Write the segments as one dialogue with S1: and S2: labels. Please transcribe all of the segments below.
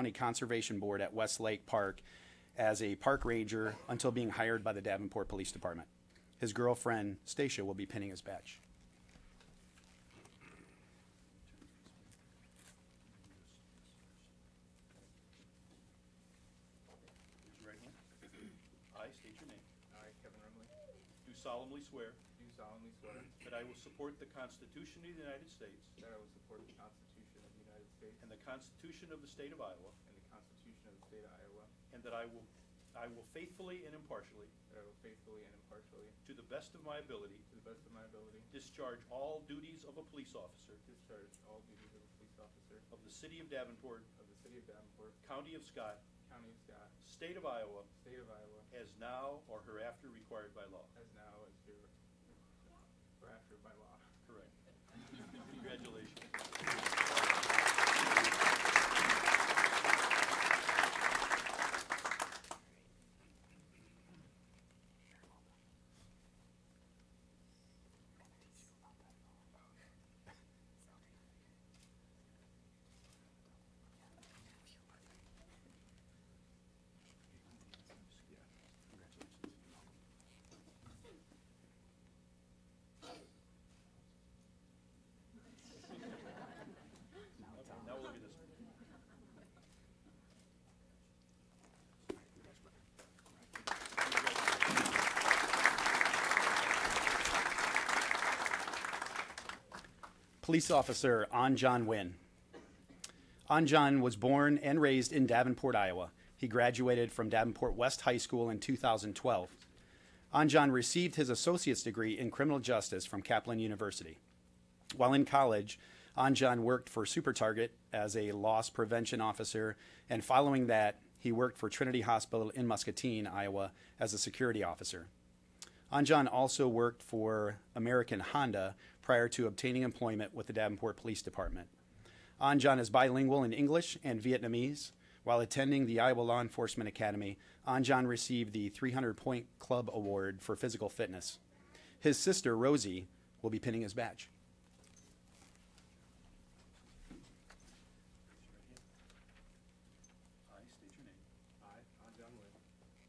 S1: County Conservation Board at Westlake Park as a park ranger until being hired by the Davenport Police Department. His girlfriend, Stacia, will be pinning his badge.
S2: Raise your right hand. I state your name.
S3: I, Kevin Remley, do
S2: Do solemnly swear
S3: solemnly swear
S2: that I will support the Constitution of the United States
S3: that I will support the Constitution of the United States
S2: and the Constitution of the State of Iowa,
S3: and the Constitution of the State of Iowa,
S2: and that I will, I will faithfully and impartially,
S3: that I will faithfully and impartially,
S2: to the best of my ability,
S3: to the best of my ability,
S2: discharge all duties of a police officer
S3: discharge all duties of a police officer
S2: of the City of Davenport,
S3: of the City of Davenport,
S2: County of Scott,
S3: County of Scott,
S2: State of Iowa,
S3: State of Iowa,
S2: as now or hereafter required by law.
S3: as now as here, hereafter by law.
S2: Correct. Congratulations. Okay, Now we'll look at this one.
S1: Police Officer Anjan Nguyen. Anjan was born and raised in Davenport, Iowa. He graduated from Davenport West High School in 2012. Anjan received his associate's degree in criminal justice from Kaplan University. While in college, Anjan worked for Super Target as a loss prevention officer, and following that, he worked for Trinity Hospital in Muscatine, Iowa, as a security officer. Anjan also worked for American Honda prior to obtaining employment with the Davenport Police Department. Anjan is bilingual in English and Vietnamese. While attending the Iowa Law Enforcement Academy, Anjan received the 300 Point Club Award for physical fitness. His sister, Rosie, will be pinning his badge.
S2: I state your name.
S3: I, John Wood,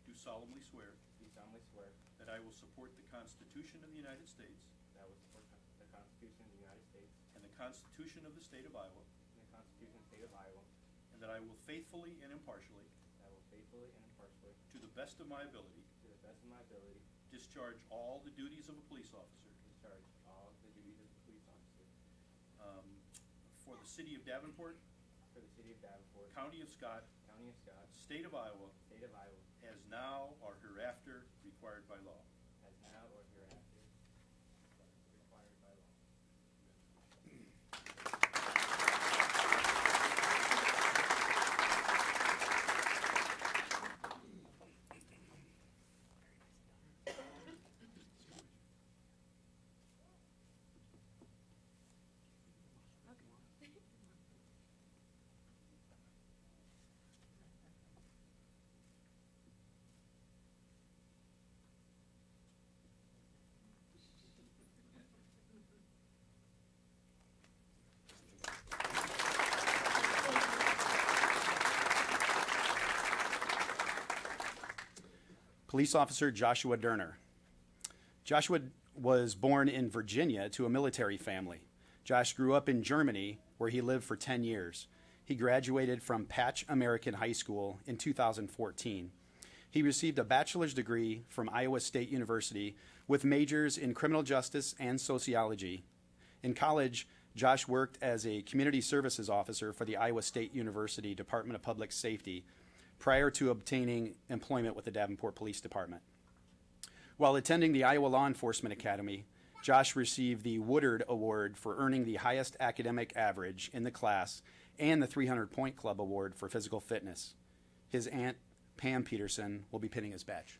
S3: do
S2: Do solemnly swear
S3: solemnly swear
S2: that I will support the Constitution of the United States
S3: that I will support the Constitution of the United States
S2: and the Constitution of the State of Iowa,
S3: and the Constitution of the State of Iowa,
S2: and that I will faithfully and impartially,
S3: that I will faithfully and impartially,
S2: to the best of my ability,
S3: to the best of my ability,
S2: discharge all the duties of a police officer
S3: discharge all the duties of a police officer
S2: um, for the City of Davenport,
S3: for the City of Davenport,
S2: County of Scott,
S3: County of Scott,
S2: State of Iowa,
S3: State of Iowa,
S2: as now or hereafter required by law.
S3: as now or hereafter required by law.
S1: Police Officer Joshua Derner. Joshua was born in Virginia to a military family. Josh grew up in Germany, where he lived for 10 years. He graduated from Patch American High School in 2014. He received a bachelor's degree from Iowa State University with majors in criminal justice and sociology. In college, Josh worked as a community services officer for the Iowa State University Department of Public Safety prior to obtaining employment with the Davenport Police Department. While attending the Iowa Law Enforcement Academy, Josh received the Woodard Award for earning the highest academic average in the class and the 300 Point Club Award for physical fitness. His aunt, Pam Peterson, will be pinning his badge.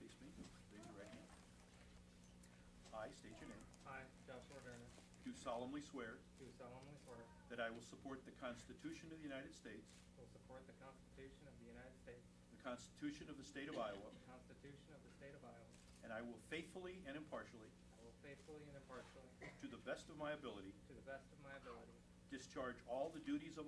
S2: Face me, raise your right hand. I state your name.
S3: I, Joshua Derner,
S2: Do solemnly swear
S3: do solemnly swear
S2: that I will support the Constitution of the United States,
S3: will support the Constitution of the United States,
S2: the Constitution of the State of Iowa,
S3: the Constitution of the State of Iowa.
S2: and I will faithfully and impartially,
S3: I will faithfully and impartially,
S2: to the best of my ability,
S3: to the best of my ability,
S2: discharge all the duties of